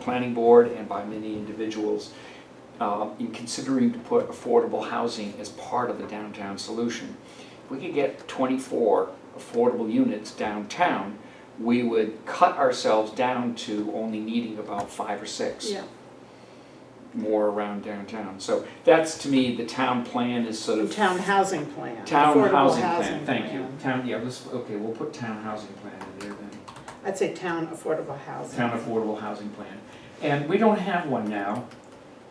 planning board and by many individuals uh, in considering to put affordable housing as part of the downtown solution. If we could get 24 affordable units downtown, we would cut ourselves down to only needing about five or six Yeah, more around downtown. So that's, to me, the town plan is sort the of town housing plan. town affordable housing plan, thank you. plan. Town, yeah, let's, okay, we'll put town housing plan in there then. I'd say town affordable housing. town affordable housing plan. And we don't have one now,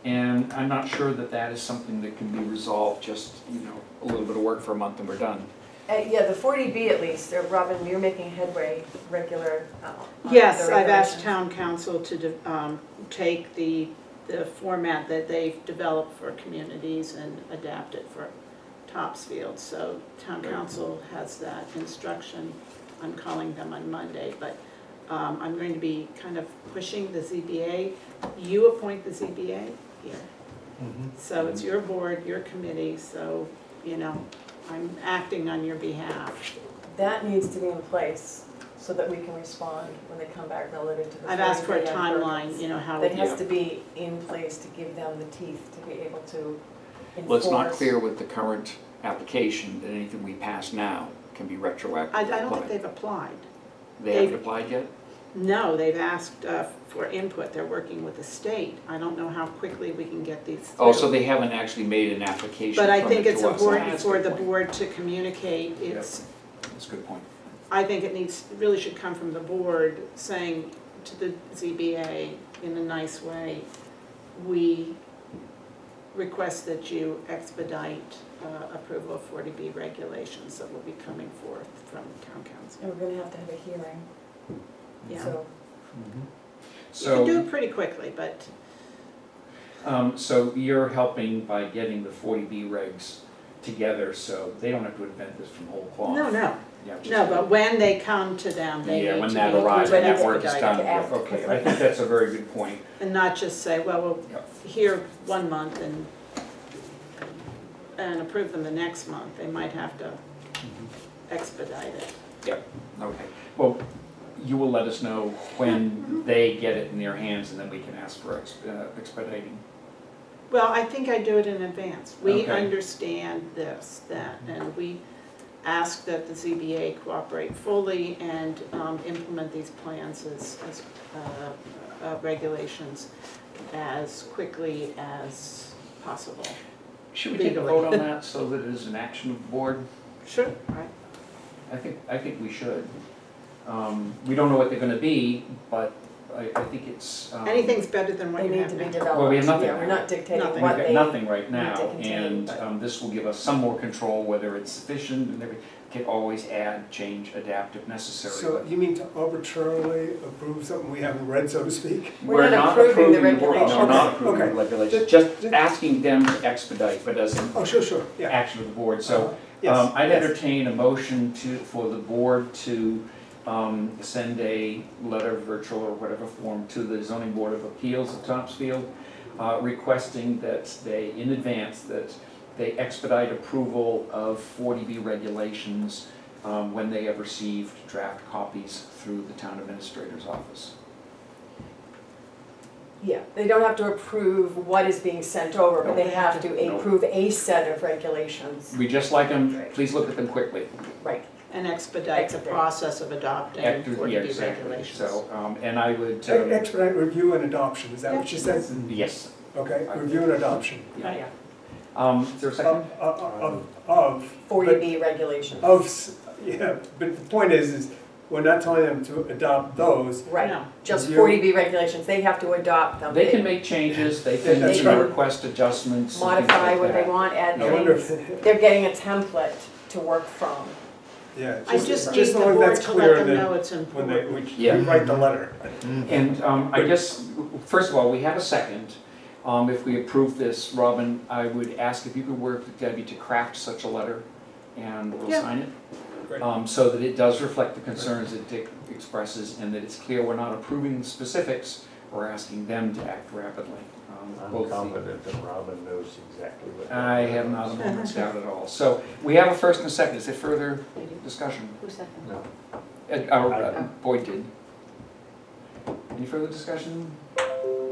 and I'm not sure that that is something that can be resolved, just, you know, a little bit of work for a month and we're done. Uh, Yeah, the 40B at least, uh, Robin, you're making headway regular. uh, on Yes, the I've asked regulations. town council to de- um, take the, the format that they've developed for communities and adapt it for Topsfield. So town Right. council has that instruction. I'm calling them on Monday, but um, I'm going to be kind of pushing the ZBA. You appoint the ZBA here. So it's your board, your committee, so, you know, I'm acting on your behalf. That needs to be in place so that we can respond when they come back relative to the 40B. I've asked for a on timeline, permits. you know, how. That we has to be in place to give them the teeth to be able to enforce. Well, it's not clear with the current application that anything we pass now can be retroactive. I, I don't think they've applied. They haven't applied yet? No, they've asked uh, for input, they're working with the state. I don't know how quickly we can get these through. Oh, so they haven't actually made an application But I permit think it's to us. important That's a for good the point. board to communicate, it's, That's a good point. I think it needs, really should come from the board saying to the ZBA in a nice way, we request that you expedite uh, approval of 40B regulations that will be coming forth from town council. And we're going to have to have a hearing, Yeah, so. you can do Mm-hmm. So, it pretty quickly, but um, so you're helping by getting the 40B regs together, so they don't have to invent this from whole cloth. no, no, Yeah, just- no, but when they come to them, they Yeah, need when to that be arrives, when that expedited. work is done, expedited. okay, I think that's a very good point. And not just say, well, we'll Yep. here one month and, and approve them the next month, they might have to expedite it. Mm-hmm. Okay, well, you will let us know when they get it in their hands, and then we can ask for ex- uh, expediting. Well, I think I do it in advance. We Okay. understand this, that, and we ask that the ZBA cooperate fully and um, implement these plans as, as, uh, uh, regulations as quickly as possible. Should we take a vote on that, so that it is an action of the board? Sure. Right? I think, I think we should. Um, We don't know what they're gonna be, but I, I think it's. um, Anything's better than what They you need have to be now. developed. Well, we have nothing Yeah, we're now. not dictating Nothing. what We've got they. nothing right now, what they contain, and but- um, this will give us some more control, whether it's sufficient and everything. Can always add, change, adapt if necessary. So but you mean to arbitrarily approve something we haven't read, so to speak? We're not approving the regulations. We're not approving the Okay. regulations, Just- just just- asking them to expedite, but as an Oh, sure, sure, yeah. Uh, action of the board. So Yes, um, I'd yes. entertain a motion to, for the board to um, send a letter, virtual or whatever form, to the zoning board of appeals of Topsfield, uh, requesting that they, in advance, that they expedite approval of 40B regulations um, when they have received draft copies through the town administrator's office. Yeah, they don't have to approve what is being sent over, but they have to No. approve a set of regulations. We just like them, Right. please look at them quickly. Right, And expedite the Expedite. process of adopting After- yeah, 40B exactly. regulations. So, um, and I would, Ex- um, Expedite review and adoption, is that what you said? yes. Okay, review and adoption. Yeah. yeah. Um, is there a Of, second? of- uh, of, of. but- 40B regulations. Of, s- yeah, but the point is, is we're not telling them to adopt those. Right, No. just You- forty B regulations, they have to adopt them. They can make changes, they can That's right. request adjustments and things Modify like what they that. want, add I wonder things, if, they're getting a template to work from. yeah. I just need just the so board that's to clear let them that know it's When they, important. we Yeah. we write the letter. And um, I guess, first of all, we have a second. Um, If we approve this, Robin, I would ask if you could work with Debbie to craft such a letter and we'll Yeah. sign it. Great. um, So that it does reflect the concerns that Dick expresses and that it's clear we're not approving specifics, we're asking them to act rapidly. Um, both I'm the- confident that Robin knows exactly what. I have not a moment's doubt at all. So we have a first and a second. Is there further discussion? Who's that? No. Uh, uh, Boyd did. Any further discussion?